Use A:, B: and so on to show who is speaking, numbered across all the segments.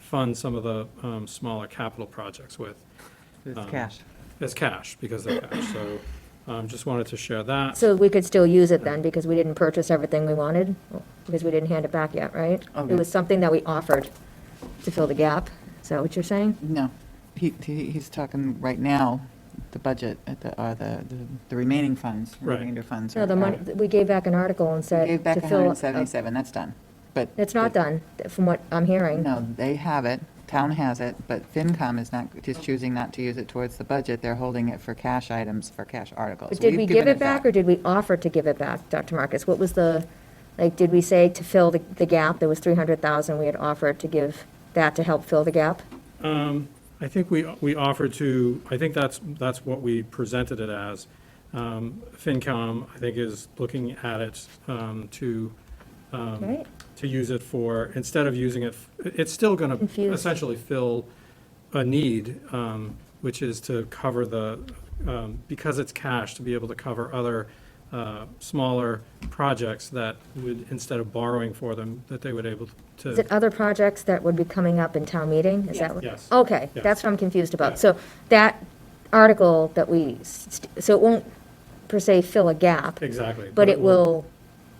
A: fund some of the um, smaller capital projects with.
B: It's
A: Um,
B: cash.
A: It's cash, because they're cash, so um, just wanted to share that.
C: So we could still use it then, because we didn't purchase everything we wanted, because we didn't hand it back yet, right?
B: Okay.
C: It was something that we offered to fill the gap. Is that what you're saying?
B: No, he, he- he's talking right now, the budget, at the, uh, the, the- the remaining funds,
A: Right.
B: remainder funds.
C: No,
B: are-
C: the money,
B: are-
C: we gave back an article and said.
B: uh, Gave back
C: to fill-
B: 177, that's done, but.
C: It's not done, from what I'm hearing.
B: No, they have it, town has it, but FinCom is not, is choosing not to use it towards the budget. They're holding it for cash items, for cash articles.
C: But did
B: We've
C: we give
B: given
C: it back, or did we offer to give it back, Dr. Marcus? What was the, like, did we say to fill the, the gap, there was 300,000, we had offered to give that to help fill the gap?
A: I think we, we offered to, I think that's, that's what we presented it as. Um, FinCom, I think, is looking at it um, to, um,
C: Right.
A: to use it for, instead of using it, f- it's still going to
C: Infuse.
A: essentially fill a need, um, which is to cover the, um, because it's cash, to be able to cover other uh, smaller projects that would, instead of borrowing for them, that they would able to.
C: Is it other projects that would be coming up in town meeting? Is that what?
A: Yes.
C: Okay,
A: Yes.
C: that's what I'm confused about.
A: Yeah.
C: So that article that we, s- st- so it won't per se fill a gap,
A: Exactly.
C: but it will,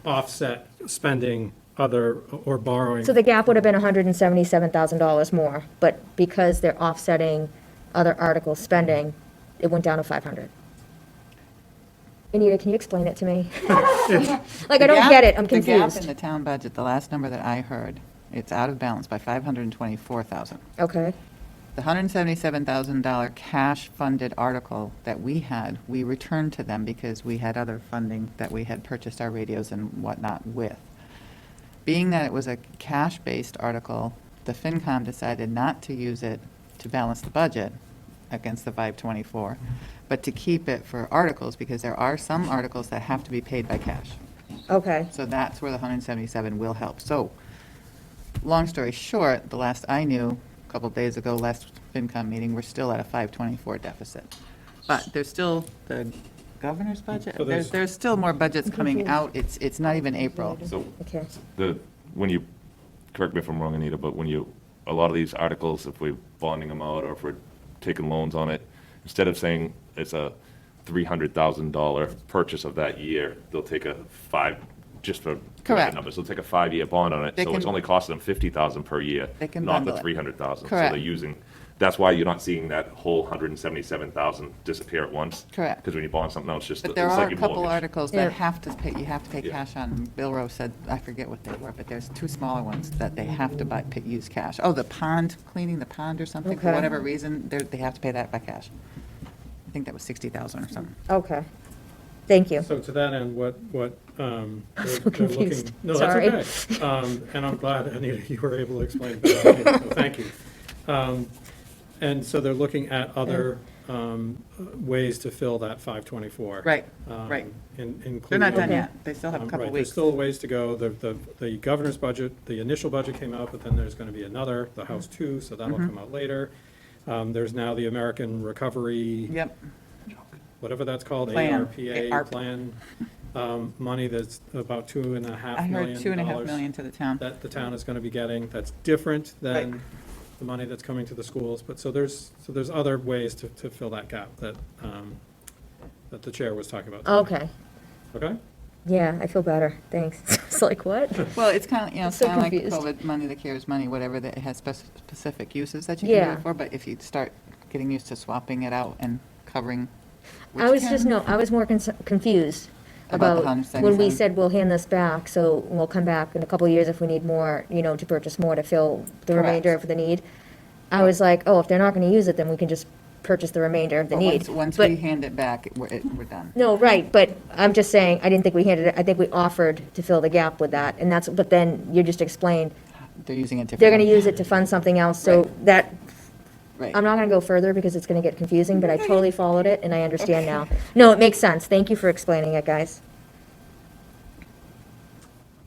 A: offset spending other, or borrowing.
C: so the gap would have been $177,000 more, but because they're offsetting other article spending, it went down to 500. Anita, can you explain it to me? Like,
B: The
C: I don't
B: gap-
C: get it, I'm
B: The gap in
C: confused.
B: the town budget, the last number that I heard, it's out of balance by 524,000.
C: Okay,
B: The $177,000 cash-funded article that we had, we returned to them because we had other funding that we had purchased our radios and whatnot with. Being that it was a cash-based article, the FinCom decided not to use it to balance the budget against the 524, but to keep it for articles, because there are some articles that have to be paid by cash.
C: okay.
B: So that's where the 177 will help. So, long story short, the last I knew, a couple days ago, last FinCom meeting, we're still at a 524 deficit. But there's still the governor's budget,
A: So there's-
B: there's, there's still more budgets coming out, it's, it's not even April.
D: So
C: Okay.
D: the, when you, correct me if I'm wrong, Anita, but when you, a lot of these articles, if we're bonding them out or if we're taking loans on it, instead of saying it's a $300,000 purchase of that year, they'll take a five, just for
B: Correct.
D: numbers, they'll take a five-year bond on it.
B: They
D: So it's
B: can-
D: only costing them 50,000 per year,
B: They can
D: not the
B: bundle it.
D: 300,000. So
B: Correct.
D: they're using, that's why you're not seeing that whole 177,000 disappear at once.
B: Correct.
D: Because when you bond something out, it's just,
B: But
D: it's
B: there are
D: like
B: a
D: your
B: couple
D: mortgage.
B: articles
C: Yeah.
B: that have to pay, you have to pay
D: Yeah.
B: cash on. Bill Rowe said, I forget what they were, but there's two smaller ones that they have to buy, pay- use cash. Oh, the pond, cleaning the pond or something, for
C: Okay.
B: whatever reason, they're, they have to pay that by cash. I think that was 60,000 or something.
C: Okay, thank you.
A: So to that end, what, what, um. I'm
C: so confused.
A: No,
C: Sorry.
A: that's okay. Um, and I'm glad, Anita, you were able to explain better, than me, so thank you. Um, and so they're looking at other, um, ways to fill that five twenty-four.
B: Right,
A: um,
B: right.
A: In, including.
B: They're not done yet. They still have a
A: Um,
B: couple
A: right, There's
B: weeks.
A: still ways to go. The, the, the governor's budget, the initial budget came out, but then there's gonna be another, the House
B: Mm-hmm.
A: two, so that'll come out later. Um, there's now the American Recovery.
B: Yep,
A: whatever that's called,
B: Plan.
A: ARPA
B: ARP.
A: plan, um, money that's about two and a
B: I
A: half million
B: heard
A: dollars.
B: two and a half million to the town.
A: That the town is gonna be getting, that's different than
B: Right.
A: the money that's coming to the schools, but so there's, so there's other ways to, to fill that gap that, um, that the chair was talking about.
C: Okay,
A: Okay?
C: yeah, I feel better, thanks. It's like, what?
B: Well, it's kind of, you know, it's
C: So
B: kind of like
C: confused.
B: COVID money, the CARES money, whatever, that has spec- specific uses that you can
C: Yeah.
B: do it for, but if you start getting used to swapping it out and covering. which
C: I was just,
B: can-
C: no, I was more cons- confused
B: About the
C: about when we
B: 177.
C: said we'll hand this back, so we'll come back in a couple of years if we need more, you know, to purchase more to fill the
B: Correct.
C: remainder of the need. I was like, oh, if they're not gonna use it, then we can just purchase the remainder of the
B: but once-
C: need.
B: Once
C: But-
B: we hand it back, it- we're, it- we're done.
C: No, right, but I'm just saying, I didn't think we handed it, I think we offered to fill the gap with that, and that's, but then you just explained,
B: They're using it differently.
C: they're gonna use it to fund something else, so
B: Right.
C: that,
B: Right.
C: I'm not gonna go further because it's gonna get confusing, but I totally followed it and I understand now. No, it makes sense, thank you for explaining it, guys.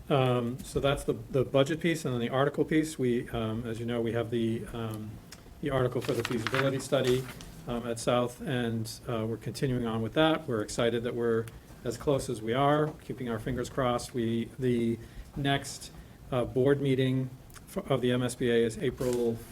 A: Um, So that's the, the budget piece, and then the article piece, we, um, as you know, we have the, um, the article for the feasibility study um, at South, and uh, we're continuing on with that. We're excited that we're as close as we are, keeping our fingers crossed. We, the next uh, board meeting f- of the MSBA is April